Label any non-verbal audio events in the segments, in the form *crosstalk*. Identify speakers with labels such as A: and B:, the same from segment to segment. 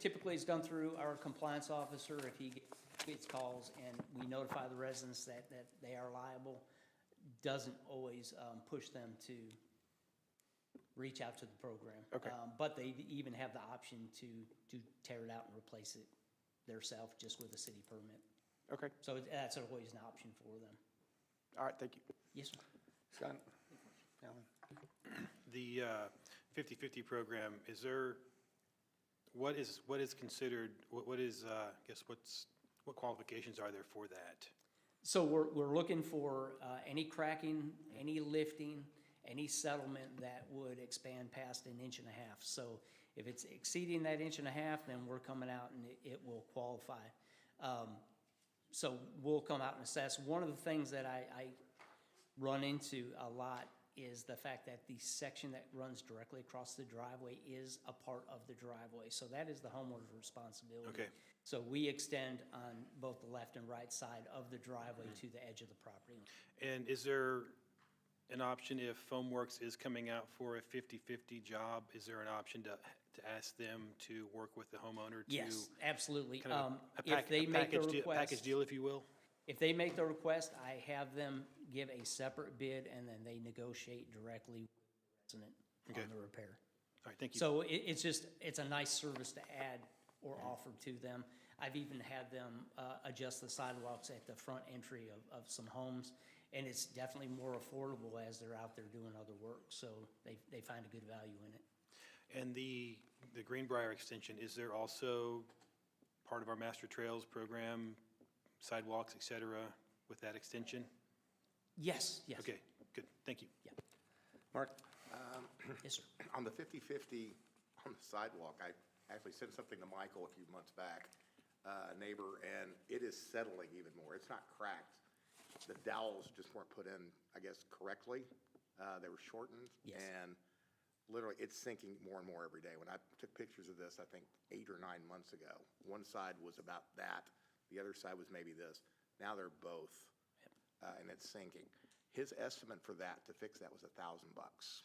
A: Typically, it's done through our compliance officer if he gets calls and we notify the residents that, that they are liable. Doesn't always, um, push them to reach out to the program.
B: Okay.
A: Um, But they even have the option to, to tear it out and replace it theirself just with a city permit.
B: Okay,
A: So it- that's always an option for them.
B: all right, thank you.
A: Yes, sir.
B: Scott? Alan?
C: The uh, 50/50 program, is there, what is, what is considered, what what is, uh, I guess, what's, what qualifications are there for that?
A: So we're, we're looking for, uh, any cracking, any lifting, any settlement that would expand past an inch and a half. So if it's exceeding that inch and a half, then we're coming out and it, it will qualify. Um, so we'll come out and assess. One of the things that I, I run into a lot is the fact that the section that runs directly across the driveway is a part of the driveway. So that is the homeowner's responsibility.
C: Okay.
A: So we extend on both the left and right side of the driveway
C: Mm-hmm.
A: to the edge of the property.
C: And is there an option if Foamworks is coming out for a 50/50 job, is there an option to, to ask them to work with the homeowner to?
A: Yes, absolutely.
C: Kind of
A: Um,
C: a
A: if
C: pack-
A: they
C: a
A: make the
C: package deal- Package
A: request,
C: deal, if you will?
A: if they make the request, I have them give a separate bid and then they negotiate directly with the resident
C: Okay.
A: on the repair.
C: All right, thank you.
A: So it, it's just, it's a nice service to add or offer to them. I've even had them, uh, adjust the sidewalks at the front entry of, of some homes. And it's definitely more affordable as they're out there doing other work, so they, they find a good value in it.
C: And the, the Greenbrier extension, is there also part of our master trails program, sidewalks, et cetera, with that extension?
A: Yes, yes.
C: Okay, good, thank you.
B: Mark?
A: Yes, sir.
D: On the 50/50 on the sidewalk, I actually sent something to Michael a few months back, uh, a neighbor, and it is settling even more. It's not cracked. The dowels just weren't put in, I guess, correctly. Uh, They were shortened.
A: Yes.
D: And literally, it's sinking more and more every day. When I took pictures of this, I think eight or nine months ago, one side was about that, the other side was maybe this. Now they're both, uh, and it's sinking. His estimate for that, to fix that, was a thousand bucks.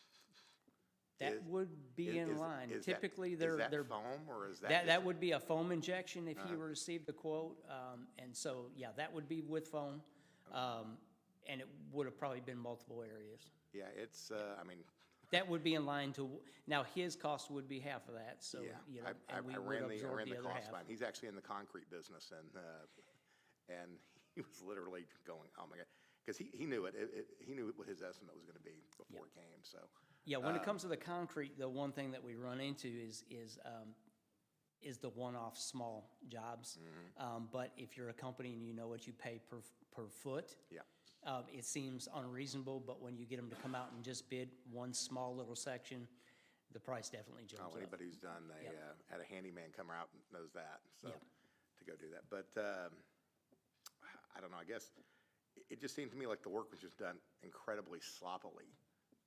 A: That
D: Is-
A: would be
D: Is-
A: in
D: is-
A: line.
D: is that-
A: Typically, they're,
D: Is
A: they're,
D: that foam or is Uh-huh. that?
A: that, that
D: just-
A: would be a foam injection if you received the quote. Um, and so, yeah, that would be with foam. Um, and it would have probably been multiple areas.
D: Yeah, it's, uh, I mean,
A: That would be in line to, now his cost would be half of that, so,
D: yeah.
A: you know,
D: I- I-
A: and we
D: I
A: would
D: ran the- I
A: absorb
D: ran
A: the other half.
D: cost by him. He's actually in the concrete business and, uh, and *laughs* he was literally going, oh my God. Because he, he knew it. It- it- He knew what his estimate was going to be before it came, so.
A: Yeah,
D: Uh,
A: when it comes to the concrete, the one thing that we run into is, is, um, is the one-off small jobs.
D: Mm-hmm.
A: Um, but if you're a company and you know what you pay per, per foot,
D: Yeah.
A: um, it seems unreasonable, but when you get them to come out and just bid one small little section, the price definitely jumps
D: Oh,
A: up.
D: anybody who's done, they, uh, had a handyman come out and knows that, so,
A: Yep.
D: to go do that. But, um, I don't know, I guess, it, it just seemed to me like the work was just done incredibly sloppily,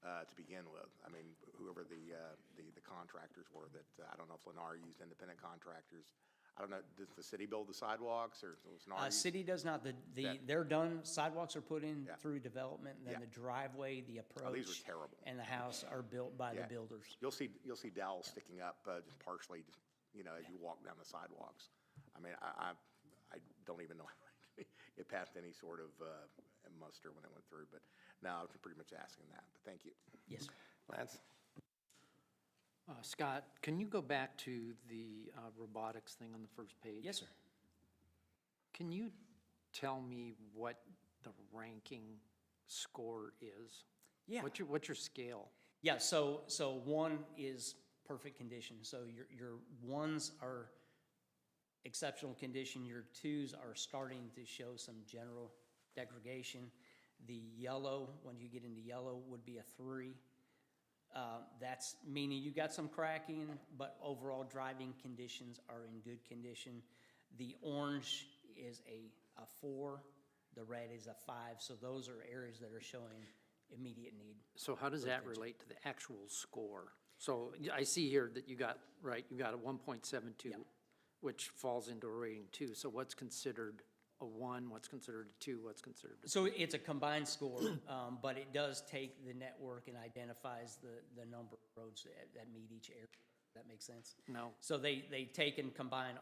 D: uh, to begin with. I mean, whoever the, uh, the, the contractors were that, uh, I don't know if Lennar used independent contractors. I don't know, does the city build the sidewalks or was Lennar?
A: Uh,
D: use-
A: city does not, the, the,
D: That-
A: they're done, sidewalks are put in
D: Yeah.
A: through development, and then
D: Yeah. Oh,
A: the driveway, the approach.
D: these were terrible.
A: And the house are built by the
D: Yeah.
A: builders.
D: You'll see, you'll see dowels sticking up, uh, just partially, just, you know, as you walk down the sidewalks. I mean, I, I, I don't even know, *laughs* how it passed any sort of, uh, muster when it went through, but now I'm pretty much asking that, but thank you.
A: Yes, sir.
B: Lance?
E: Uh, Scott, can you go back to the uh, robotics thing on the first page?
A: yes, sir.
E: Can you tell me what the ranking score is?
A: Yeah.
E: What's your, what's your scale?
A: Yeah, so, so one is perfect condition, so your, your ones are exceptional condition, your twos are starting to show some general degradation. The yellow, when you get into yellow, would be a three. Uh, That's meaning you got some cracking, but overall driving conditions are in good condition. The orange is a, a four, the red is a five, so those are areas that are showing immediate need.
E: So how does that relate to the actual score? So y- I see here that you got, right, you got a 1.72, which falls into a rating two. So what's considered a one, what's considered a two, what's considered a
A: So it's a combined score, um, but it does take the network and identifies the, the number of roads that, that meet each area. that makes sense?
E: No.
A: So they, they take and combine